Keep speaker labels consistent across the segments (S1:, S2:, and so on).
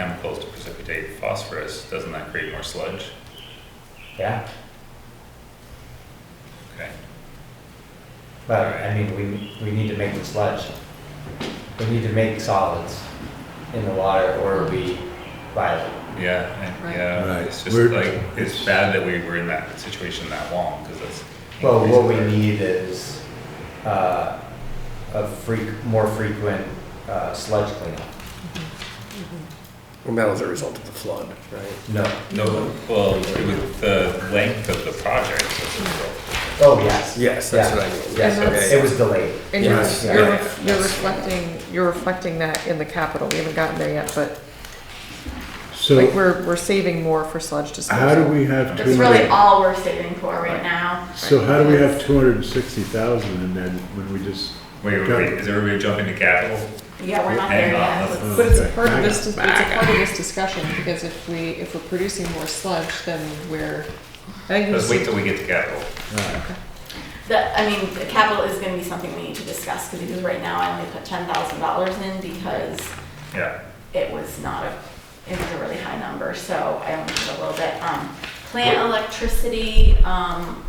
S1: chemicals to precipitate phosphorus, doesn't that create more sludge?
S2: Yeah,
S1: Okay.
S2: but I mean, we, we need to make the sludge. We need to make solids in the water or we violate.
S1: Yeah, I-
S3: Right.
S1: yeah,
S4: Right.
S1: it's just
S4: We're-
S1: like, it's bad that we were in that situation that long, because that's.
S2: Well, what we
S1: increases our-
S2: need is, uh, a freq, more frequent, uh, sludge cleanup.
S5: Well, that was a result of the flood, right?
S2: No,
S1: No, well, with the length of the project, that's a
S2: oh, yes.
S5: Yes, that's what I
S2: Yeah.
S5: mean.
S2: Yes,
S3: And
S2: it was delayed.
S3: And you're,
S5: Yes,
S3: you're,
S1: yeah.
S3: ref- you're reflecting, you're reflecting that in the capital, we haven't gotten there yet, but like,
S4: So
S3: we're, we're saving more for sludge disposal.
S4: how do we have two
S6: That's really
S4: hundred,
S6: all we're saving for right now.
S4: so how do we have two hundred and sixty thousand in there when we just?
S1: Wait, wait, wait, is everybody jumping to capital?
S6: Yeah, we're not
S1: Hang
S6: there
S1: on,
S6: yet.
S1: let's-
S6: Let's-
S3: But it's a
S4: Okay.
S3: part of this, dis- it's a part of this discussion, because if we, if we're producing more sludge, then we're, I think
S1: Let's wait
S3: we
S1: till we get to capital.
S6: The, I mean, the capital is gonna be something we need to discuss, cause because right now I only put ten thousand dollars in because
S1: Yeah,
S6: it was not a, it was a really high number, so I only put a little bit. Um, plant electricity, um,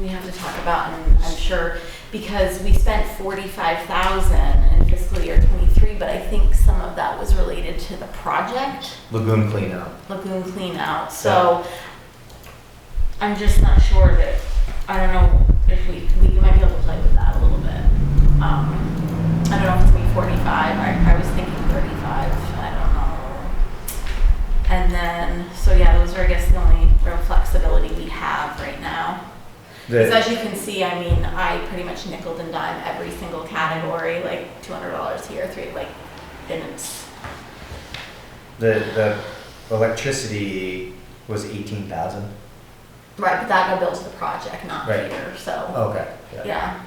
S6: we have to talk about, and I'm sure, because we spent forty-five thousand in fiscal year twenty-three, but I think some of that was related to the project.
S2: Lagoon cleanup.
S6: lagoon clean out, so I'm just not sure that, I don't know if we, we might be able to play with that a little bit. Um, I don't know if it's gonna be forty-five, I, I was thinking thirty-five, I don't know. And then, so yeah, those are, I guess, the only real flexibility we have right now. Because
S2: The-
S6: as you can see, I mean, I pretty much nickel and dime every single category, like two hundred dollars here, three, like, and it's,
S2: The, the electricity was eighteen thousand?
S6: right, but that got billed to the project, not
S2: Right.
S6: here, so.
S2: Okay, yeah.
S6: Yeah,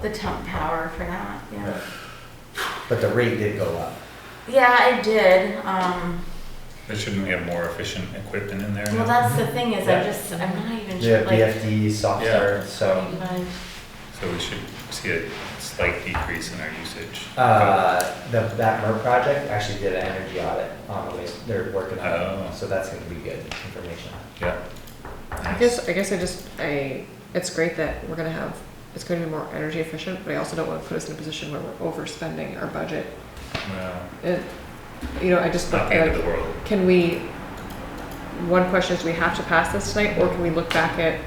S6: the temp power for that, yeah.
S2: But the rate did go up.
S6: Yeah, I did, um,
S1: but shouldn't we have more efficient equipment in there now?
S6: well, that's the thing is,
S2: Yeah.
S6: I'm just, I'm not even
S2: The
S6: sure, like.
S2: BFD software, so,
S6: even-
S1: So we should see a slight decrease in our usage.
S2: uh, the, that MERP project actually did an energy audit on the waste, they're working on
S1: Oh.
S2: it, so that's gonna be good information.
S1: Yeah.
S3: I guess, I guess I just, I, it's great that we're gonna have, it's gonna be more energy efficient, but I also don't wanna put us in a position where we're overspending our budget.
S1: Well,
S3: It, you know, I just,
S1: not
S3: like,
S1: the end of the world.
S3: Can we, one question is, do we have to pass this tonight, or can we look back at,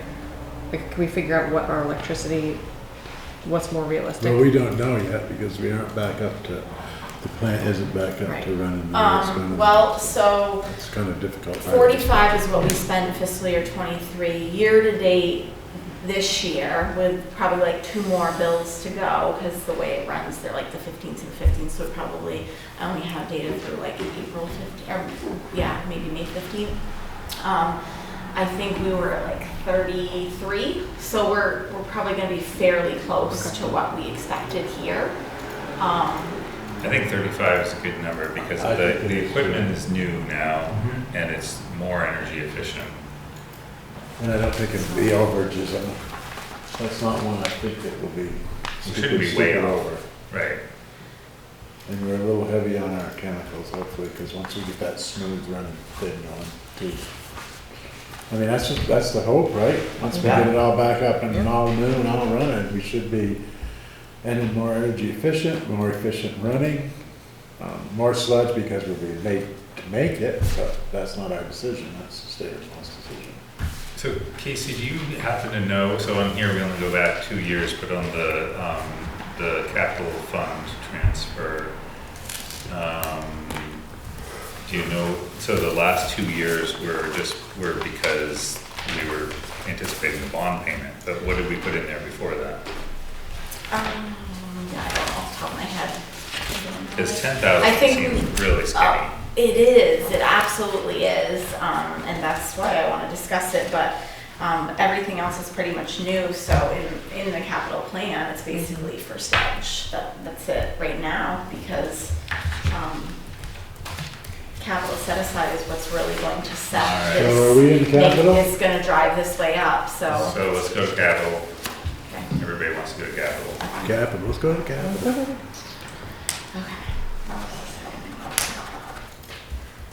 S3: like, can we figure out what our electricity, what's more
S4: Well, we
S3: realistic?
S4: don't know yet because we aren't back up to, the plant isn't back up
S3: Right.
S4: to running. It's kind
S6: Um,
S4: of-
S6: well, so
S4: It's kind of difficult.
S6: forty-five is what we spent in fiscal year twenty-three, year-to-date this year, with probably like two more bills to go, because the way it runs, they're like the fifteenth and fifteenth, so probably, I only have data through like April fifteenth, or, yeah, maybe May fifteenth. Um, I think we were at like thirty-three, so we're, we're probably gonna be fairly close to what we expected here. Um,
S1: I think thirty-five is a good number because
S4: I
S1: the,
S4: think it
S1: the
S4: is. Mm-hmm.
S1: equipment is new now and it's more energy efficient.
S4: And I don't think it'll be overages. I mean, That's not one I think that will be.
S1: We shouldn't be
S4: super,
S1: way
S4: super
S1: over, right?
S4: And we're a little heavy on our chemicals hopefully, because once we get that smooth running thing going too. I mean, that's, just- that's the hope, right? Once we get it all back up and all new and all running, we should be ending more energy efficient, more efficient running, um, more sludge because we'll be late to make it, but that's not our decision, that's the state response decision.
S1: So Casey, do you happen to know, so on here we only go back two years, but on the, um, the capital fund transfer, um, do you know, so the last two years were just, were because we were anticipating the bond payment, but what did we put in there before that?
S6: Um, yeah, I don't know off the top of my head. I don't know.
S1: Because ten
S6: I
S1: thousand
S6: think
S1: seems
S6: we-
S1: really skinny.
S6: Oh, It is, it absolutely is, um, and that's why I wanna discuss it, but, um, everything else is pretty much new, so in, in the capital plan, it's basically for sludge, that, that's it right now, because, um, capital set aside is what's really going to set
S1: Alright.
S6: this.
S4: So are we in capital?
S6: It's gonna drive this way up, so.
S1: So let's go to capital,
S6: Okay.
S1: everybody wants to go to capital.
S4: Capital, let's go to capital.